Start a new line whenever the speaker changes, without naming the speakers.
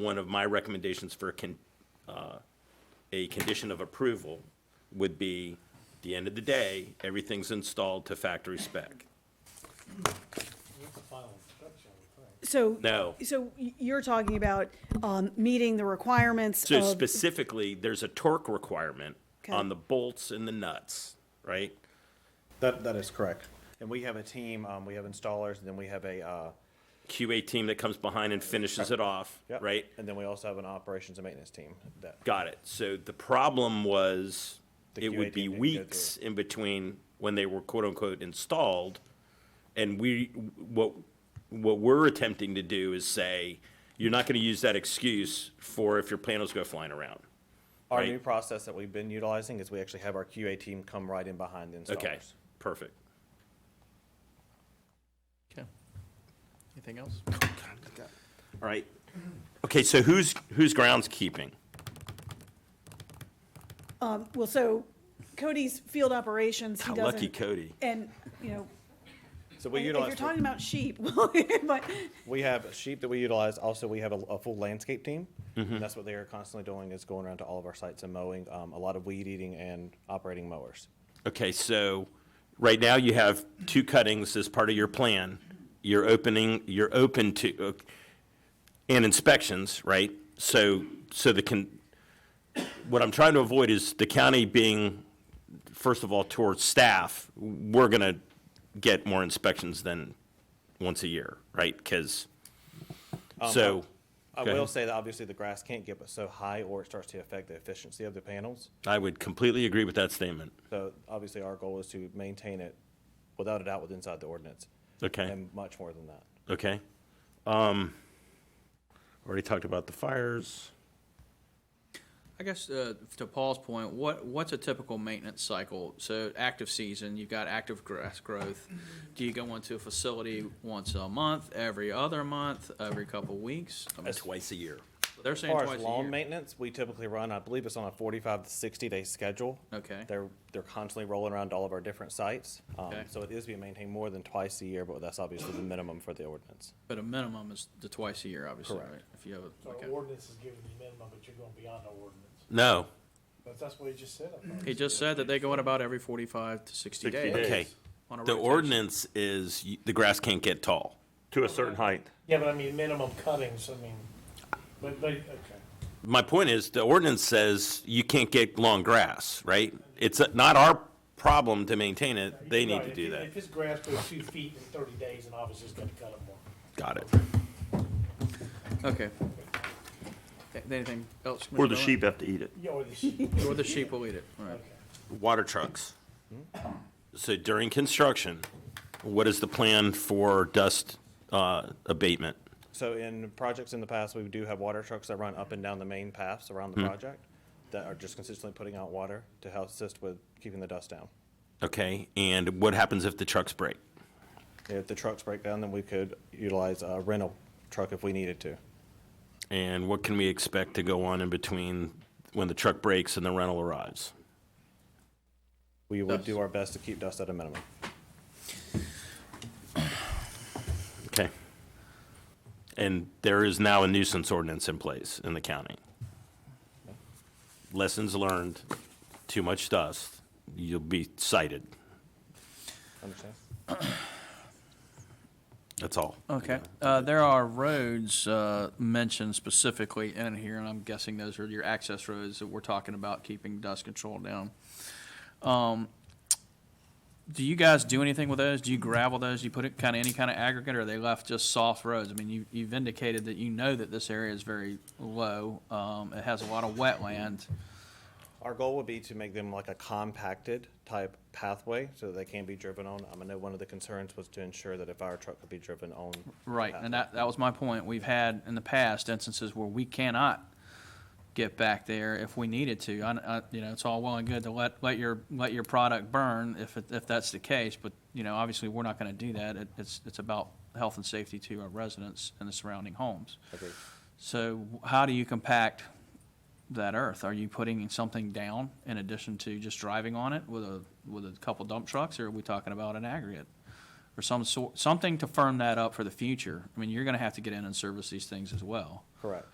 one of my recommendations for a con, uh, a condition of approval would be, at the end of the day, everything's installed to factory spec.
So.
No.
So y- you're talking about um, meeting the requirements
So
of,
specifically, there's a torque requirement
Okay.
on the bolts and the nuts, right?
That, that is correct. And we have a team, um, we have installers, and then we have a, uh.
QA team that comes behind and finishes it off,
yeah,
right?
And then we also have an operations and maintenance team that,
Got it. So the problem was,
The
it
QA
would be
team didn't go through
weeks in between when they were quote unquote installed. And we, what, what we're attempting to do is say, you're not gonna use that excuse for if your panels go flying around.
our
Right.
new process that we've been utilizing is we actually have our QA team come right in behind the installers.
Okay, perfect.
Okay. Anything else?
All right. Okay, so who's, who's groundskeeping?
well, so Cody's field operations, he
How
doesn't.
lucky Cody.
And, you know,
So we
and if you're
utilize,
talking about sheep, but,
we have sheep that we utilize, also we have a, a full landscape team.
Mm-hmm.
And that's what they are constantly doing, is going around to all of our sites and mowing, um, a lot of weed eating and operating mowers.
Okay, so right now you have two cuttings as part of your plan. You're opening, you're open to, uh, and inspections, right? So, so the can, what I'm trying to avoid is the county being, first of all, towards staff, we're gonna get more inspections than once a year, right? Because, so.
Um, I
go
will
ahead.
say that obviously the grass can't get but so high or it starts to affect the efficiency of the panels.
I would completely agree with that statement.
So obviously, our goal is to maintain it without a doubt with inside the ordinance.
Okay.
And much more than that.
Okay. Um, already talked about the fires.
I guess uh, to Paul's point, what, what's a typical maintenance cycle? So active season, you've got active grass growth. Do you go into a facility once a month, every other month, every couple weeks? I mean,
twice a year.
They're
As
saying
far
twice
as
a
lawn
year.
maintenance, we typically run, I believe it's on a forty-five to sixty-day schedule.
Okay.
They're, they're constantly rolling around to all of our different sites. Um,
Okay.
so it is being maintained more than twice a year, but that's obviously the minimum for the ordinance.
But a minimum is the twice a year, obviously, right?
Correct.
If you have, a-
So
okay.
ordinance is giving you minimum, but you're going beyond the ordinance.
No.
But that's what he just said. I thought.
He just said that they go in about every forty-five to sixty
60
days.
days.
Okay.
on a
The
rotation.
ordinance is y- the grass can't get tall.
to a certain height.
Yeah, but I mean, minimum cuttings, I mean, but, but, okay.
My point is the ordinance says you can't get long grass, right? It's not our problem to maintain it. They need
Right,
to
if
do
you-
that.
If this grass goes two feet in thirty days, and obviously it's gonna cut it more.
Got it.
Okay. Okay, Anything else?
Or the
Commissioner
sheep have to eat it.
Yeah, or the sheep.
Miller? Or the sheep will eat it, all right.
Okay.
Water trucks. So during construction, what is the plan for dust uh, abatement?
So in projects in the past, we do have water trucks that run up and down the main paths around the project that are just consistently putting out water to help assist with keeping the dust down.
Okay, and what happens if the trucks break?
If the trucks break down, then we could utilize a rental truck if we needed to.
And what can we expect to go on in between when the truck breaks and the rental arrives?
We would
Dust.
do our best to keep dust at a minimum.
Okay. And there is now a nuisance ordinance in place in the county. Lessons learned, too much dust, you'll be cited.
Understand?
That's all.
Okay, uh, there are roads, uh, mentioned specifically in here, and I'm guessing those are your access roads that we're talking about keeping dust control down. Um, do you guys do anything with those? Do you gravel those? Do you put it kind of, any kind of aggregate, or are they left just soft roads? I mean, you, you've indicated that you know that this area is very low, um, it has a lot of wetland.
Our goal would be to make them like a compacted type pathway so that they can be driven on. Um, I know one of the concerns was to ensure that a fire truck could be driven on.
Right, and that, that was my point. We've had in the past instances where we cannot get back there if we needed to. I, I- you know, it's all well and good to let, let your, let your product burn if, it- if that's the case, but, you know, obviously, we're not gonna do that. It, it's, it's about health and safety to our residents and the surrounding homes.
Agreed.
So how do you compact that earth? Are you putting something down in addition to just driving on it with a, with a couple dump trucks, or are we talking about an aggregate? Or some sort, something to firm that up for the future. I mean, you're gonna have to get in and service these things as well.
Correct.